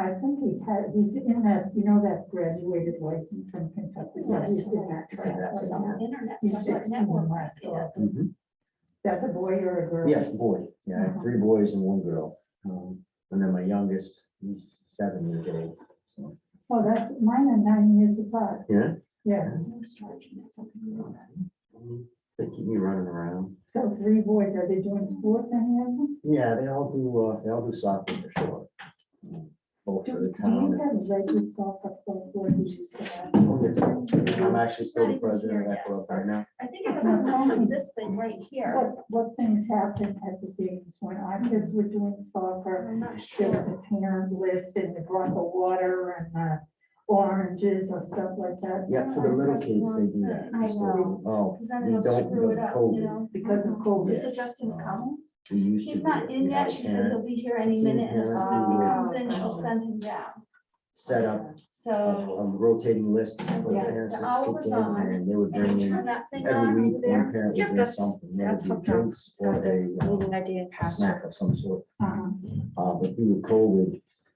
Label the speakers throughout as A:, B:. A: I think he had, he's in that, you know, that graduated license from Kentucky. so he's in that
B: Except
A: track.
B: it's on the internet, so
A: He's
B: it's like
A: sixteen
B: network
A: and left
B: marketing.
A: off. That's a boy or a girl?
C: Mm-hmm. Yes, boy. Yeah, I
B: Uh-huh.
C: have three boys and one girl. Um, And then my youngest, he's seven years old. So,
A: Oh, that's, mine are nine years apart,
C: yeah.
A: yeah.
B: Who's charging that something like that?
C: um, They keep me running around.
A: So three boys, are they doing sports, any of them?
C: Yeah, they all do, uh, they all do soccer for sure. Um, Both
A: Do
C: for
A: do
C: the
A: you
C: town.
A: have a record soccer club where you used to have?
C: I'm actually still the president of that club right now.
B: I think it was on top of this thing right here.
A: What, what things happened at the games when our kids were doing soccer?
B: I'm not
A: There
B: sure.
A: was a parent list and they brought the water and the oranges or stuff like that
C: Yeah, for the little kids, they do that.
B: I know.
C: Oh,
B: Because then
C: We
B: it'll
C: don't
B: screw it
C: know
B: up, you
C: COVID.
B: know?
A: because of COVID.
B: Is it Justin's
C: um,
B: coming?
C: we used to.
B: He's
C: do
B: not
C: it.
B: in
C: We
B: yet.
C: had a
B: She said he'll
C: parent
B: be here any
C: It's in
B: minute. And as soon as he
A: parents'
B: comes in, she'll send him down.
C: Set up a
B: So.
C: a rotating list. and put
B: Yeah,
C: parents
B: Oh. the
C: would
B: hour
C: kick
B: was
C: in
B: on,
C: And they would bring
B: And
C: in
B: turn that thing
C: Every
B: on
C: week,
B: over there.
C: one parent
D: Yeah,
C: would bring
D: that's-
C: something, whether
D: that's
C: it be
D: hooked on.
C: drinks or a,
D: Meeting idea
C: uh, a
D: passed.
C: snack of some sort.
A: Uh-huh.
C: Uh, but due to COVID,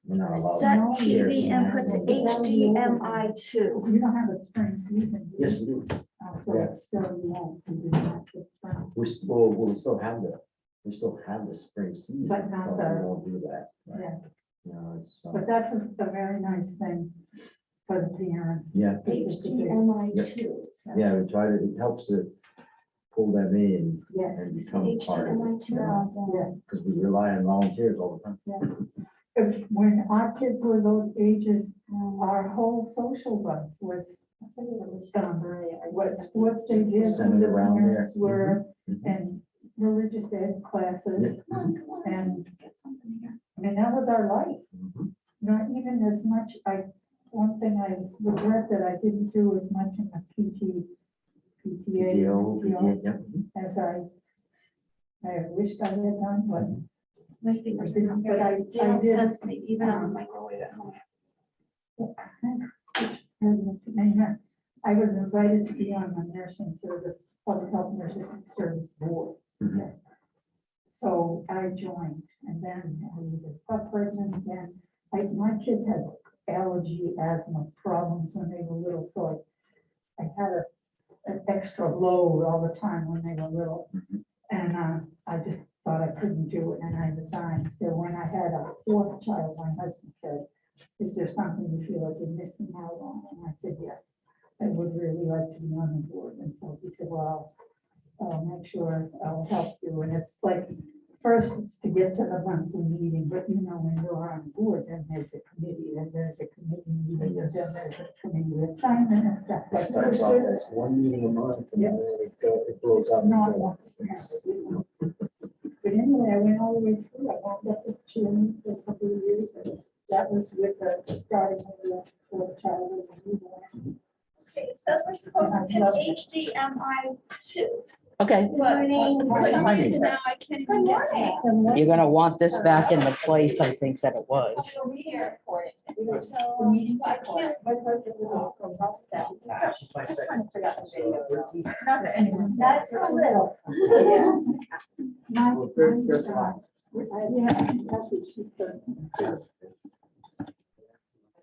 C: we're not
B: Set
C: allowed. chairs
B: TV
C: and
B: input
C: that.
B: to HDMI two.
A: You don't have a spring, so you can. do
C: Yes,
A: it.
C: we do.
A: Uh, So it's still, you won't do that this spring.
C: We still, we still have the, we still have the spring season.
A: But not
C: We
A: the-
C: won't do that. right?
A: Yeah.
C: No, it's, uh,
A: But that's a a very nice thing for the parents.
C: yeah,
B: HDMI two. so-
C: yeah, we try to, it helps to pull them in
A: Yes,
C: and
B: So
C: become part of
B: HDMI
C: it.
B: two out there.
A: yes.
C: Because we rely on volunteers all the time.
A: If- When our kids were those ages, our whole social life was what sports they did, who
C: Centered
A: the
C: around there.
A: parents were,
C: Mhm, mhm.
A: and religious ed classes.
B: Come on, come on,
A: And-
B: get something here.
A: I mean, that was our life,
C: Mhm.
A: not even as much, I, one thing I regret that I didn't do as much in the PT, PTA
C: PTO,
A: PTO,
C: yeah, mhm.
A: as I, I wished I had done, but,
B: My fingers
A: But
B: become
A: I-
B: very, they
A: I
B: don't
A: did-
B: sense me even on the microwave at home.
A: and I was invited to be on the nursing service, public health nursing service board.
C: Mhm.
A: So I joined and then I was got pregnant again. Like my kids had allergy, asthma problems when they were little, so I I had a an extra load all the time when they were little.
C: Mhm.
A: And uh, I just thought I couldn't do it and I resigned. So when I had a fourth child, my husband said, is there something you feel like you're missing out on? And I said, yes, I would really like to be on the board. And so he said, well, I'll make sure I'll help you. And it's like, first it's to get to the monthly meeting, but you know, when you're on board, then there's a committee, then there's a committee meeting,
C: Yes.
A: then there's a committee assignment and stuff.
C: It
A: like
C: starts
A: that.
C: off as one meeting a month and then it go- it blows up.
A: Not
C: until-
A: one percent. But anyway, I went all the way through, I wound up with children for a couple of years, and that was with the starting of the fourth child. and the newborn.
B: Okay, it says we're supposed to
A: Love
B: pick HDMI two,
E: Okay,
B: but for some
E: morning.
B: reason now I can't even get to that.
A: And what-
E: you're gonna want this back in the place I think that it was.
B: I'll be here for it.
A: The
B: So,
A: meeting.
B: but I can't.
A: My husband was a professional.
C: She's my
B: I just
C: second.
B: wanna figure out the video.
A: That's a little.
B: Yeah.
A: My-
C: Well, first- first of all,
A: I- Yeah, I think that's what she said.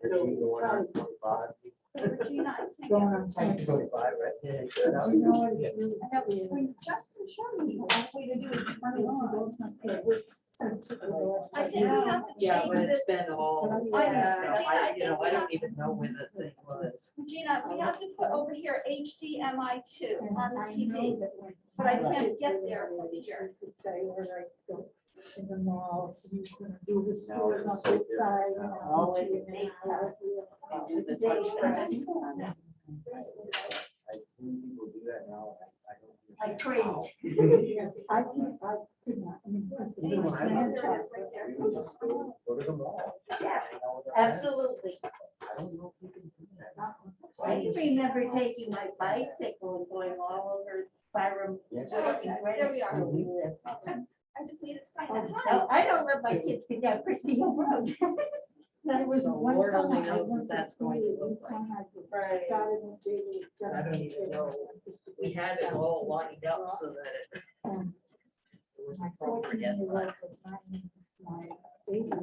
C: You're the one on 25.
B: So Regina,
A: Going
B: I can't.
A: on
C: Like
A: site.
C: 25, right? Yeah,
A: You know what?
C: yeah.
A: it's really-
B: I know, when Justin showed me, all we had to do is turn it on. It was sent to the. I think we have to
D: Yeah, but
B: change this.
D: it's been all,
B: I-
D: yeah,
B: Regina, I
D: I, you know,
B: think we
D: I
B: have-
D: don't even know when the thing was.
B: Regina, we have to put over here HDMI two on the
A: I
B: TV.
A: know that when-
B: but I can't get there from here.
A: Could Say where I go in the mall, you can do the
C: No,
A: stores
C: it's
A: up
C: so
A: the
C: different
A: side.
C: now.
D: All in
A: and
B: the
A: out.
D: Do the
B: They
D: touch
B: were
D: screen.
B: just going that.
C: I see people do that now. I- I don't
B: I
C: understand
B: cringe.
C: how.
A: I can't, I could not. I mean, this is
B: There it is,
A: my grandchild.
B: right there.
C: Go to school, Go to the mall.
B: Yeah,
C: I know what that is.
F: Absolutely.
C: I don't know if you can do that.
F: I can remember taking my bicycle and going all over Byram.
C: Yes.
F: working right
B: Oh, There we are.
F: where we live.
B: I just need to find that.
A: Oh,
F: Now, I don't let my kids get down Christie Hill Road.
A: There was
D: So
A: one
D: Lord
A: summer
D: only
A: I
D: knows what
A: went to
D: that's going to
A: school
D: look
A: and I
F: Right.
A: started with baby just-
D: I don't even know. We had it all lined up so that it. It was
A: My
D: appropriate, but-
A: fourteen-year-old was not in my baby